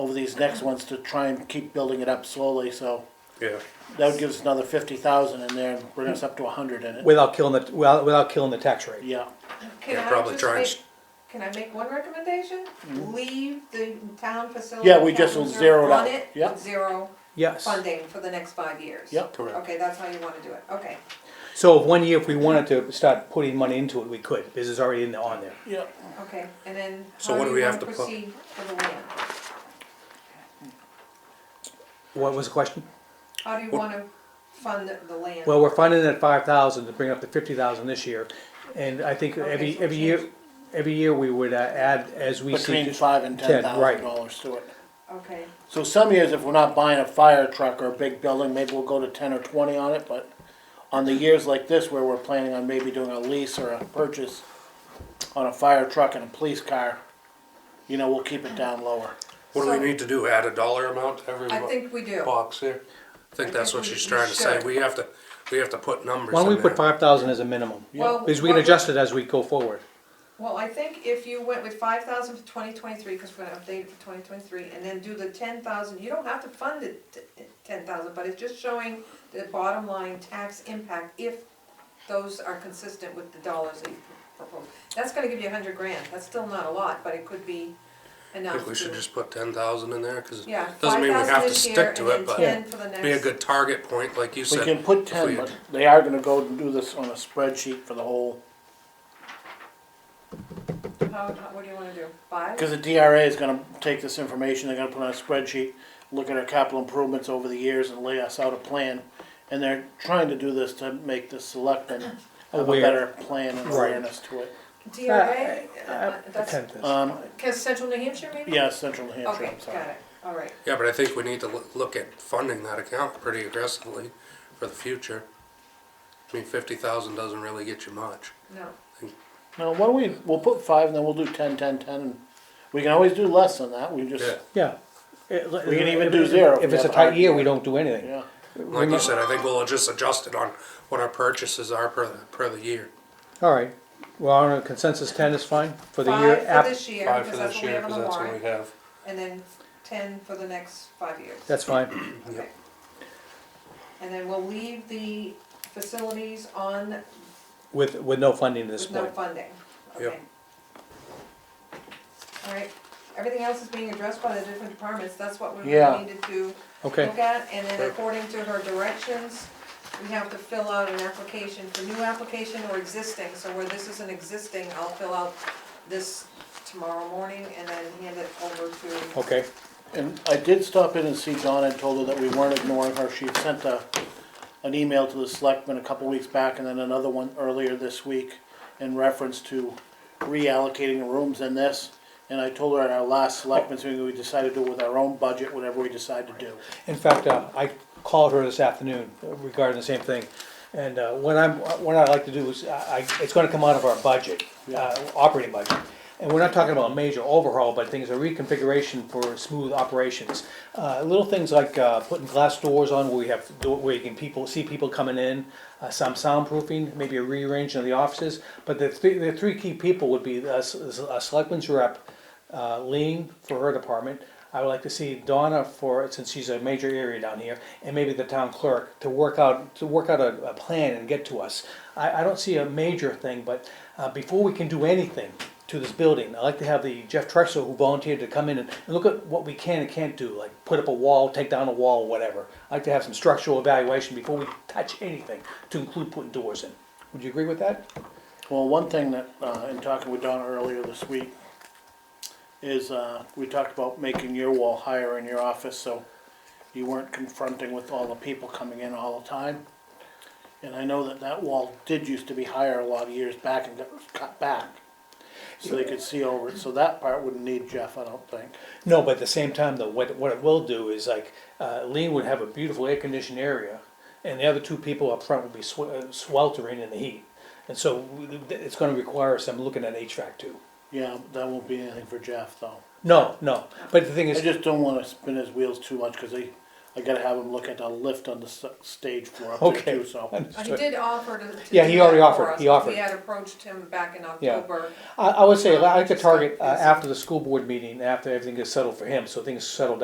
over these next ones to try and keep building it up slowly, so yeah. that would give us another fifty thousand in there and bring us up to a hundred in it. without killing the, without, without killing the tax rate. Yeah, Can Yeah, I probably just try and make- s- Mm-hmm. Can I make one recommendation? Leave the town facility. Yeah, we just town reserve zeroed on out. it, Yep. Zero Yes. funding for the next five years. Yep. Correct. Okay, that's how you wanna do it, okay. So if one year, if we wanted to start putting money into it, we could, because it's already in the, on there. yeah. Okay, and then So how what do do we you have want to to put- proceed for the land? What was the question? How do you want to fund the land? Well, we're funding it at five thousand to bring it up to fifty thousand this year, and I think Okay, every, so every year, change. every year we would uh, add as we see. Between five and ten ten, right. thousand dollars to it. Okay, So some years, if we're not buying a fire truck or a big building, maybe we'll go to ten or twenty on it, but on the years like this where we're planning on maybe doing a lease or a purchase on a fire truck and a police car, you know, we'll keep it down lower. What do So- we need to do, add a dollar amount to every I bo- think we do. box here? I think that's what we- she's we trying to say, should. we have to, we have to put numbers Why don't we in there. put five thousand as a minimum? Well, Because we can what- adjust it as we go forward. Well, I think if you went with five thousand for twenty twenty-three, because we're gonna update it for twenty twenty-three, and then do the ten thousand, you don't have to fund it ten thousand, but it's just showing the bottom line tax impact if those are consistent with the dollars that you propose. That's gonna give you a hundred grand, that's still not a lot, but it could be I enough to. think we should just put ten thousand in there, cause it Yeah, doesn't five mean we have thousand to this year stick and to then it, but ten for the next. be a good target point, like you We said. can put if ten, we- but they are gonna go and do this on a spreadsheet for the whole, How, how, what do you wanna do, five? cause the DRA is gonna take this information, they're gonna put on a spreadsheet, look at our capital improvements over the years and lay us out a plan. And they're trying to do this to make the selectmen have a Aware. better plan and Right. awareness to it. DRA, Uh, Uh, uh, that's, attend this. Um, cause Central New Hampshire maybe? Yeah, Central New Hampshire, Okay, I'm got sorry. it, all right. Yeah, but I think we need to loo- look at funding that account pretty aggressively for the future. I mean, fifty thousand doesn't really get you much. No, Now, why don't we, we'll put five and then we'll do ten, ten, ten, and we can always do less than that, we just, Yeah, Yeah. We We can even do zero if If we it's a have a hard tight year, year. we don't do anything. yeah. like you said, I think we'll just adjust it on what our purchases are per, per the year. All right, well, on a consensus ten is fine for the year five for after, this year, because that's what we have on the warrant, have. and then ten for the next five years. that's fine. Okay. And then we'll leave the facilities on With, with no funding at this with no point. funding, Yep. okay? All right, everything else is being addressed by the different departments, that's what we Yeah. really needed to Okay, look at, and then Okay. according to her directions, we have to fill out an application for new application or existing, so where this is an existing, I'll fill out this tomorrow morning and then hand it over to, okay, And I did stop in and see Donna and told her that we weren't ignoring her, she had sent a, an email to the selectmen a couple weeks back and then another one earlier this week in reference to reallocating the rooms in this, and I told her at our last selectmen's meeting, we decided to do with our own budget, whatever we decide to do. in fact, uh, I called her this afternoon regarding the same thing. And, uh, what I'm, what I'd like to do is, I, I- it's gonna come out of our budget, uh, operating budget. And we're not talking about a major overhaul, but things, a reconfiguration for smooth operations. Uh, little things like, uh, putting glass doors on where we have, door- where you can people, see people coming in, uh, some soundproofing, maybe a rearranging of the offices. But the three, the three key people would be a, a selectman's rep, uh, Lean for her department. I would like to see Donna for, since she's a major area down here, and maybe the town clerk to work out, to work out a, a plan and get to us. I, I don't see a major thing, but, uh, before we can do anything to this building, I'd like to have the Jeff Trexler who volunteered to come in and, and look at what we can and can't do, like put up a wall, take down a wall, whatever. I'd like to have some structural evaluation before we touch anything, to include putting doors in. Would you agree with that? Well, one thing that, uh, in talking with Donna earlier this week, is, uh, we talked about making your wall higher in your office, so you weren't confronting with all the people coming in all the time. And I know that that wall did used to be higher a lot of years back and got cut back, so they could see over it, so that part wouldn't need Jeff, I don't think. No, but at the same time, though, what, what it will do is like, uh, Lean would have a beautiful air-conditioned area, and the other two people up front would be swe- uh, sweltering in the heat. And so we- it's gonna require some looking at HVAC too. Yeah, that won't be anything for Jeff, though. No, no, but the thing I is, just don't wanna spin his wheels too much, cause they, I gotta have him look at the lift on the s- stage floor up Okay. there too, so. Uh, he did offer to. to Yeah, do he already that for offered, us, he but offered. We had approached him back in Yeah. October. I, I would say, I like to target, uh, after the school board meeting, after everything gets settled for him, so things settle down